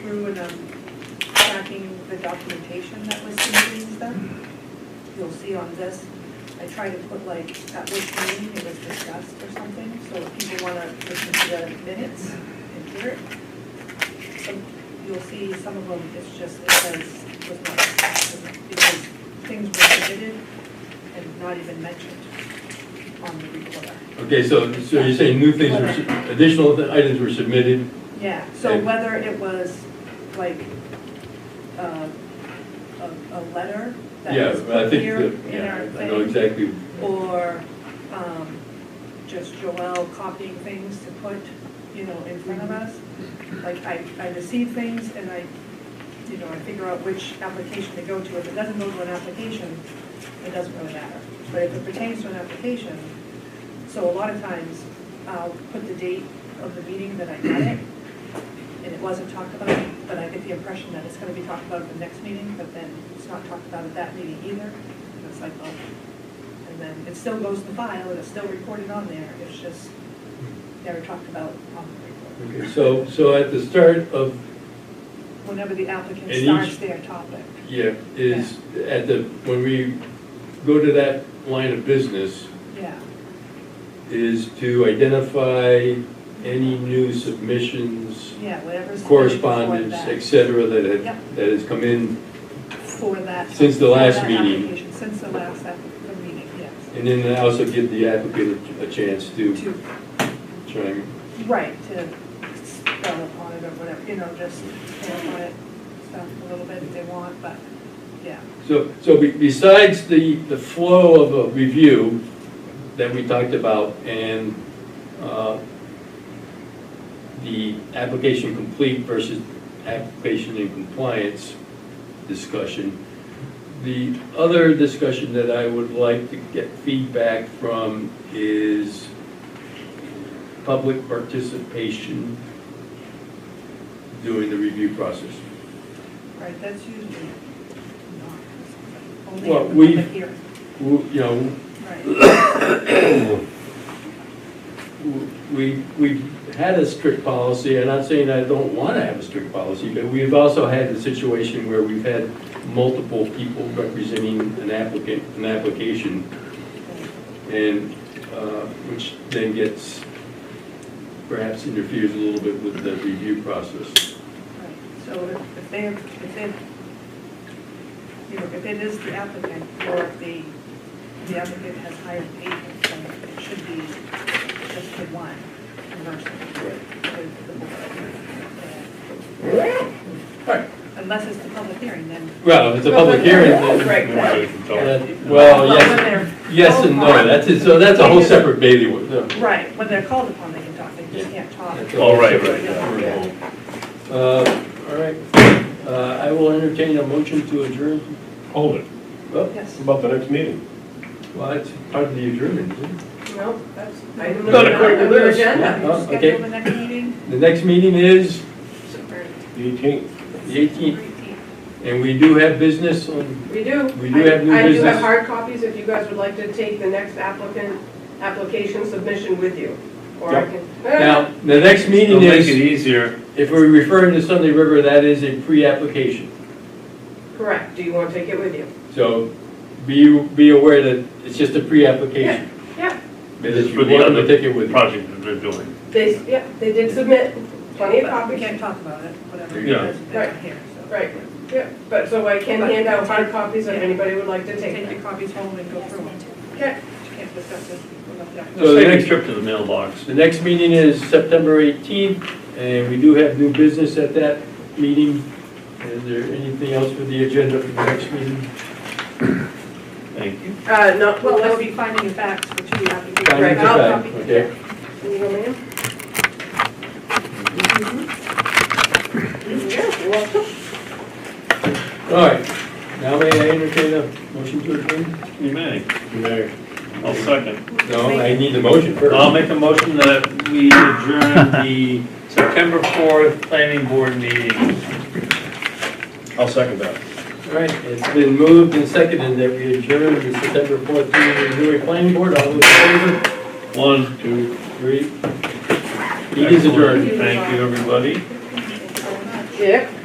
to um, the documentation that was submitted then. You'll see on this, I try to put like, at which meeting it was discussed or something, so if people wanna listen to the minutes and hear it. Some, you'll see some of them, it's just, it says, was not discussed, because things were submitted and not even mentioned on the recorder. Okay, so, so you're saying new things were, su- additional items were submitted? Yeah, so Okay. whether it was like uh, a, a letter Yeah, that was I put think, here that- in yeah, our I know thing, exactly. or um, just Joelle copying things to put, you know, in front of us. Like I, I receive things and I, you know, I figure out which application to go to. If it doesn't go to an application, it doesn't really matter. But if it pertains to an application, so a lot of times I'll put the date of the meeting that I got it, and it wasn't talked about, but I get the impression that it's gonna be talked about at the next meeting, but then it's not talked about at that meeting either. And it's like, well, and then it still goes to file, and it's still recorded on there, it's just never talked about on the record. Okay, so, so at the start of, Whenever the applicant And each- starts their topic, yeah, is at the, when we go to that line of business, yeah, is to identify any new submissions, yeah, whatever's. correspondence, et for cetera, that had, Yep. that has come in. that- For that. Since the for last that meeting. application, Since the last app- the meeting, yes. And then also give the applicant a a chance to To chime. Right, to spell upon it or whatever, you know, just clarify it, stuff a little bit if they want, but, yeah. So, so be- besides the, the flow of a review that we talked about and uh, the application complete versus application in compliance discussion, the other discussion that I would like to get feedback from is public participation during the review process. Right, that's usually not. Well, Only we've- at the hearing, Who- You know, right, We, we've had a strict policy, and I'm not saying I don't want to have a strict policy, but we've also had the situation where we've had multiple people representing an applicant, an application, and, uh, which then gets, perhaps interferes a little bit with the review process. right. So if- if they, if they, you know, if it is the applicant or if the, the applicant has hired agents, then it should be just the one person with the board. Right. Unless it's the public hearing, then Well, if it's a public hearing, then. Right, right. then- Well, yes, yes and no, that's, it. so that's a whole separate bailiwick. no. Right, when they're called upon, they can talk, they just can't talk. All right, right, Uh, All right, Uh, I will entertain a motion to adjourn. Hold it. Well, Yes. About the next meeting. well, it's part of the adjournment, isn't it? No, that's, I don't know. Not according to On your this. agenda. Can uh, you Oh, okay. Schedule the next meeting? The next meeting is The eighteenth. the 18th, and we do have business on, We do. We do have new I- I do business. have hard copies if you guys would like to take the next applicant, application submission with you. Or I Yep. can. eh, now, the next meeting is, easier. if we're referring to Sunday River, that is a pre-application. Correct, do you want to take it with you? So be, be aware that it's just a pre-application. Yeah. But if It's you for the want to other take it with you. Project that they're doing. They, s- yeah, they did submit plenty of We copies. can't talk about it, whatever, Yeah. because they're not here, so. Right, yeah, but so I can hand out hard copies if Yeah. anybody would like to take Take them. your copies home and go through them. Okay, You can't discuss it. without that. So the next- trip to the mailbox. The next meeting is September 18th, and we do have new business at that meeting. Is there anything else for the agenda for the next meeting? Thank you. uh, no, Well, well, that'll let's be finding of facts for two applications. Finding of I'll fact, copy. Okay. You know, ma'am? Yeah, you're welcome. All right, now may I entertain a motion to adjourn? You may. I'll second. No, I need a motion first. I'll make a motion that we adjourn the September 4th planning board meeting. I'll second that. All right, it's been moved and seconded that we adjourn the September 14th meeting of the Newry Planning Board. All those in favor? One, two. Three. Meeting is adjourned. Thank you, everybody. Yeah.